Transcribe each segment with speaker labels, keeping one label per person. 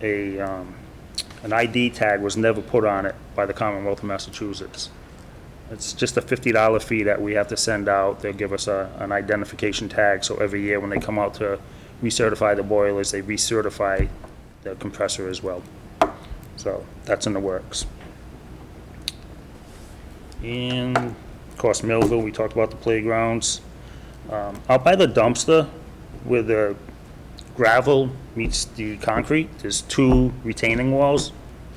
Speaker 1: a, um, an ID tag was never put on it by the Commonwealth of Massachusetts. It's just a $50 fee that we have to send out. They'll give us a, an identification tag, so every year when they come out to recertify the boilers, they recertify the compressor as well. So that's in the works. And of course, Millville, we talked about the playgrounds. Um, Out by the dumpster where the gravel meets the concrete, there's two retaining walls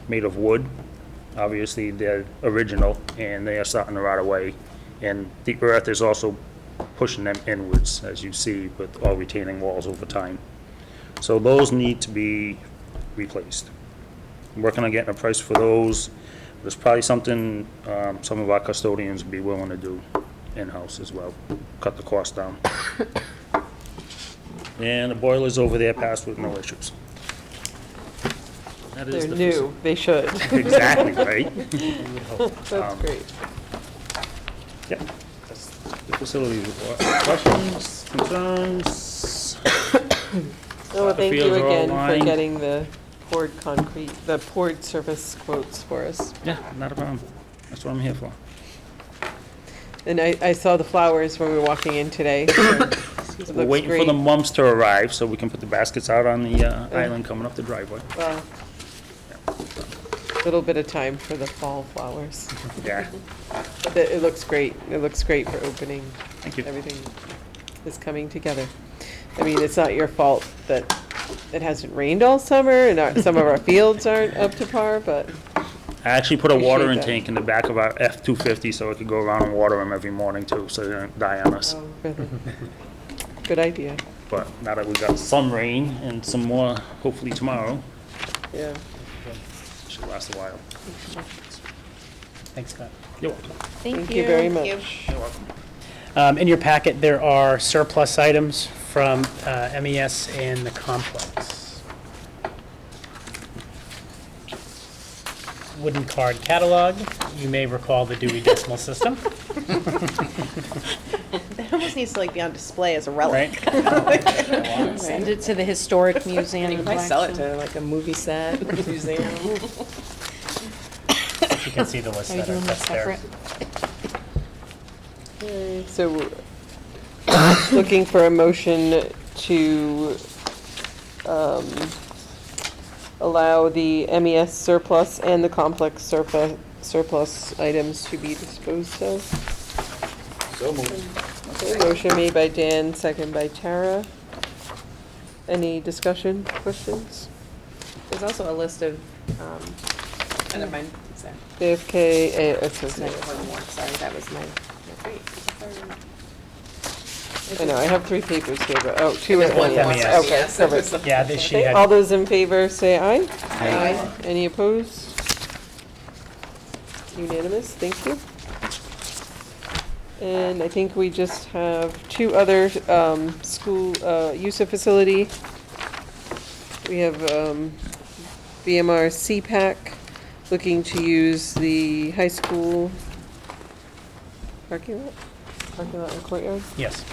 Speaker 1: made of wood. Obviously, they're original and they are starting to rot away. And the earth is also pushing them inwards, as you see with all retaining walls over time. So those need to be replaced. I'm working on getting a price for those. There's probably something um, some of our custodians would be willing to do in-house as well, cut the cost down. And the boilers over there passed with no issues. That is the
Speaker 2: They're new, they should.
Speaker 1: faci- Exactly, right?
Speaker 2: That's great.
Speaker 1: Yep. That's The facilities report. Questions, concerns?
Speaker 2: Oh,
Speaker 1: the
Speaker 2: thank you
Speaker 1: fields are all
Speaker 2: again for
Speaker 1: lined.
Speaker 2: getting the poured concrete, the poured surface quotes for us.
Speaker 1: Yeah, not a problem. That's what I'm here for.
Speaker 2: And I, I saw the flowers when we were walking in today. It looks
Speaker 1: We're waiting for the
Speaker 2: great.
Speaker 1: mums to arrive so we can put the baskets out on the uh, island coming up the driveway.
Speaker 2: Well, Little bit of time for the fall flowers.
Speaker 1: Yeah,
Speaker 2: But It, it looks great, it looks great for opening.
Speaker 1: thank you.
Speaker 2: Everything is coming together. I mean, it's not your fault that it hasn't rained all summer and our, some of our fields aren't up to par, but
Speaker 1: I actually put a water
Speaker 2: Appreciate
Speaker 1: in
Speaker 2: that.
Speaker 1: tank in the back of our F-250 so I could go around and water them every morning too, so they don't die on us.
Speaker 2: really, Oh, good idea,
Speaker 1: But now that we got some rain and some more, hopefully tomorrow,
Speaker 2: yeah.
Speaker 1: it should last a while.
Speaker 3: Thanks, Scott.
Speaker 1: You're welcome.
Speaker 2: Thank you very much.
Speaker 1: You're welcome.
Speaker 3: Um, In your packet, there are surplus items from uh, MES and the complex. Wooden card catalog, you may recall the Dewey Decimal System,
Speaker 4: It almost needs to like be on display as a relic.
Speaker 3: right?
Speaker 5: Send it to the Historic Museum
Speaker 4: You
Speaker 5: of
Speaker 4: might sell it
Speaker 5: Blackstone.
Speaker 4: to like a movie set, museum.
Speaker 3: You can see the list
Speaker 5: Are you
Speaker 3: that are
Speaker 5: doing this
Speaker 3: that's there.
Speaker 5: separate?
Speaker 2: So, looking for a motion to, um, allow the MES surplus and the complex surplus, surplus items to be disposed of. So moved. Motion made by Dan, second by Tara. Any discussion, questions?
Speaker 4: There's also a list of, um, and never mind, it's there.
Speaker 2: JFK, eh, it's
Speaker 4: It's
Speaker 2: okay.
Speaker 4: not one more, sorry, that was my. wait, it's the third.
Speaker 2: I know, I have three papers here, but, oh, two
Speaker 4: There's
Speaker 2: are
Speaker 4: one
Speaker 2: MES.
Speaker 4: more,
Speaker 3: MES.
Speaker 4: sorry,
Speaker 2: Okay,
Speaker 4: yes, that
Speaker 2: perfect.
Speaker 4: was the-
Speaker 3: Yeah, that she
Speaker 2: Okay, All
Speaker 3: had,
Speaker 2: those in favor say aye.
Speaker 4: Aye.
Speaker 2: Any opposed? Unanimous, thank you. And I think we just have two other um, school uh, use of facility. We have um, BMR CPAC looking to use the high school parking lot, parking lot and courtyard.
Speaker 5: Oh.
Speaker 3: yes.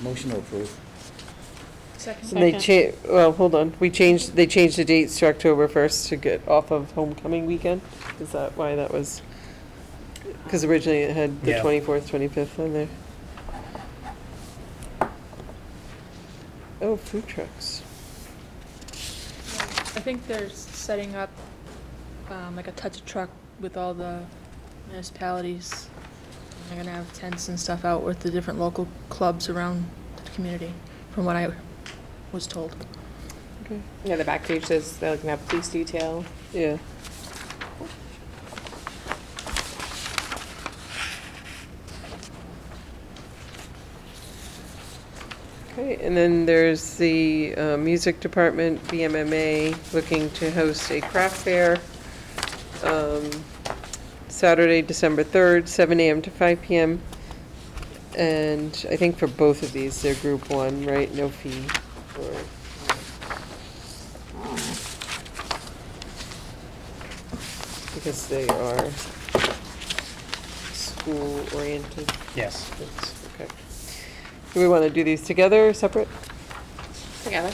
Speaker 6: Motion to approve.
Speaker 2: And they cha, well, hold on, we changed, they changed the dates to October first to get off of homecoming weekend? Is that why that was? Because originally it had the
Speaker 3: Yeah.
Speaker 2: twenty-fourth, twenty-fifth on there. Oh, food trucks.
Speaker 7: I think they're setting up um, like a touch truck with all the municipalities. They're gonna have tents and stuff out with the different local clubs around the community, from what I was told.
Speaker 4: Yeah, the back page says they're looking at police detail.
Speaker 2: Yeah. Okay, and then there's the uh, music department, BMMA, looking to host a craft fair um, Saturday, December 3rd, 7 AM to 5 PM. And I think for both of these, they're group one, right? No fee. or- Because they are school-oriented.
Speaker 3: Yes.
Speaker 2: That's- okay. Do we want to do these together or separate?